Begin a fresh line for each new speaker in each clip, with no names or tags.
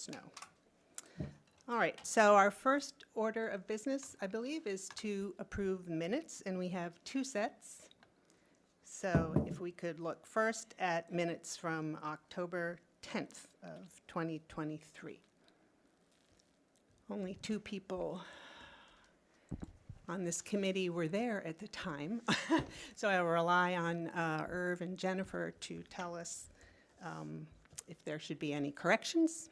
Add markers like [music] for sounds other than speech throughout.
snow. All right, so our first order of business, I believe, is to approve minutes, and we have two sets. So if we could look first at minutes from October 10th of 2023. Only two people on this committee were there at the time, [laughs] so I will rely on uh, Irv and Jennifer to tell us um, if there should be any corrections,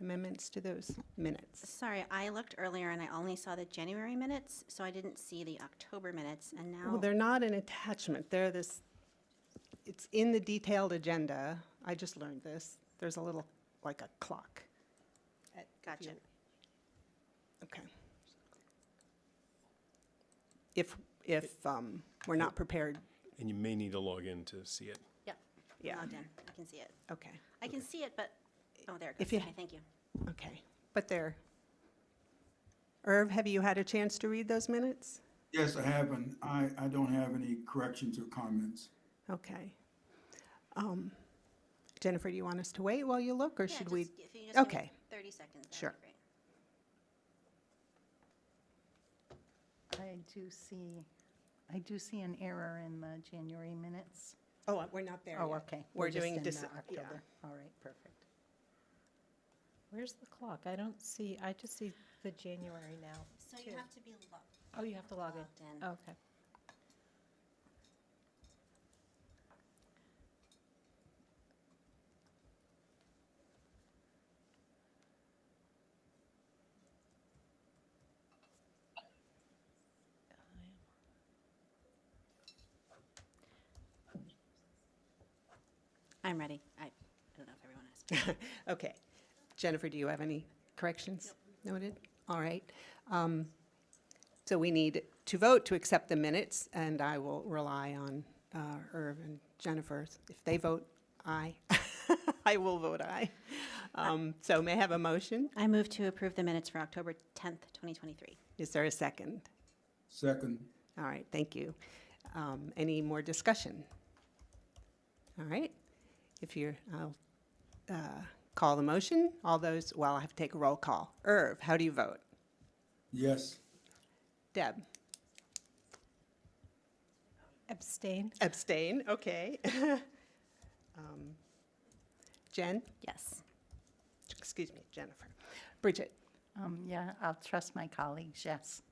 amendments to those minutes.
Sorry, I looked earlier and I only saw the January minutes, so I didn't see the October minutes, and
Well,
now,
they're not an attachment, they're this, it's in the detailed agenda, I just learned this, there's a little, like a clock. at- if
Gotcha.
you- Okay. If, if um, we're not prepared,
And you may need to log in to see it.
yep, I'm
yeah,
logged in, I can see it.
okay,
I can see it, but, oh, there it
If
goes,
you-
okay, thank you.
okay, but they're. Irv, have you had a chance to read those minutes?
Yes, I have, and I, I don't have any corrections or comments.
Okay. Um, Jennifer, do you want us to wait while you look, or
Yeah,
should
just-
we?
if you just give me
okay.
Thirty seconds, that'd be
Sure.
great.
I do see, I do see an error in the January minutes.
Oh, uh, we're not there
Oh,
yet.
okay.
We're
just
doing
in, uh,
dis- yeah.
October. All right, perfect.
Where's the clock? I don't see, I just see the January now.
So you have to be lo-
Oh, you have to
Uh,
log
logged in.
in. Okay.
I'm ready, I, I don't know if everyone
[laughs]
is.
Okay. Jennifer, do you have any corrections noted? All right. Um, So we need to vote to accept the minutes, and I will rely on uh, Irv and Jennifer. If they vote aye, [laughs] I will vote aye. Um, So may I have a motion?
I move to approve the minutes for October tenth, twenty twenty-three.
Is there a second?
Second,
All right, thank you. Um, Any more discussion? All right, if you're, I'll uh, call the motion. All those, well, I have to take a roll call. Irv, how do you vote?
yes,
Deb?
Abstain?
Abstain, okay. [laughs] Um, Jen?
Yes,
Excuse me, Jennifer. Bridget?
Um, yeah, I'll trust my colleagues, yes.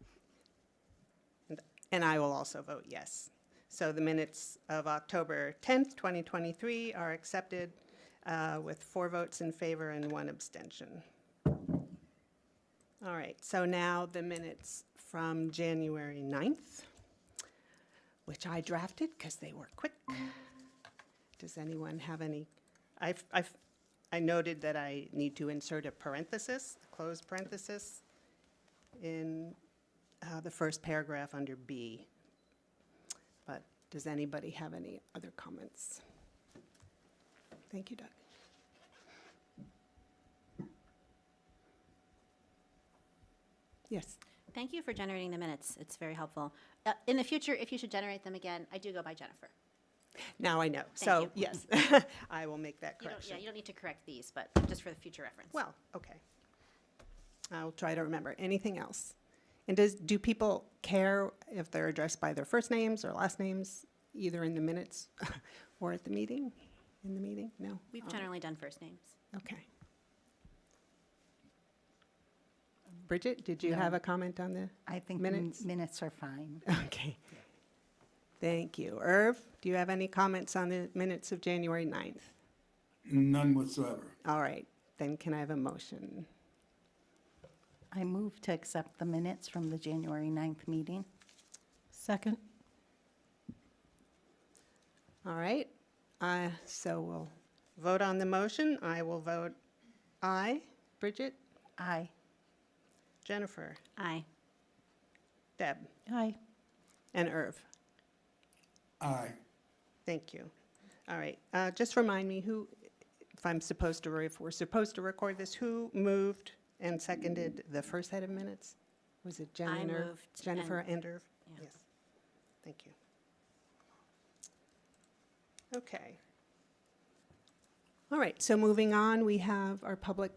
And I will also vote yes. So the minutes of October 10th, 2023 are accepted uh, with four votes in favor and one abstention. All right, so now the minutes from January 9th, which I drafted because they were quick. Does anyone have any? I've, I've, I noted that I need to insert a parenthesis, a closed parenthesis, in uh, the first paragraph under B. But does anybody have any other comments? Thank you, Doug. Yes,
thank you for generating the minutes, it's very helpful. Uh, in the future, if you should generate them again, I do go by Jennifer.
now I know. So,
you.
yes, [laughs] I will make that
You don't, yeah,
correction.
you don't need to correct these, but just for the future reference.
Well, okay. I'll try to remember. Anything else? And does, do people care if they're addressed by their first names or last names, either in the minutes [laughs] or at the meeting? In the meeting? No?
We've
All right.
generally done first names.
Okay. Bridget, did you have a comment on the, [laughs]
I think min-
Minutes?
minutes are fine.
okay. Thank you. Irv, do you have any comments on the minutes of January 9th?
none whatsoever.
All right, then can I have a motion?
I move to accept the minutes from the January 9th meeting.
Second?
All right, uh, so we'll vote on the motion. I will vote aye. Bridget?
Aye.
Jennifer?
Aye.
Deb?
Aye.
And Irv?
Aye,
Thank you. All right, uh, just remind me who, if I'm supposed to, re- if we're supposed to record this, who moved and seconded the first set of minutes? Was it Jen
I
and Irv?
moved and-
Jennifer and Irv?
Yeah.
Yes. Thank you. Okay. All right, so moving on, we have our public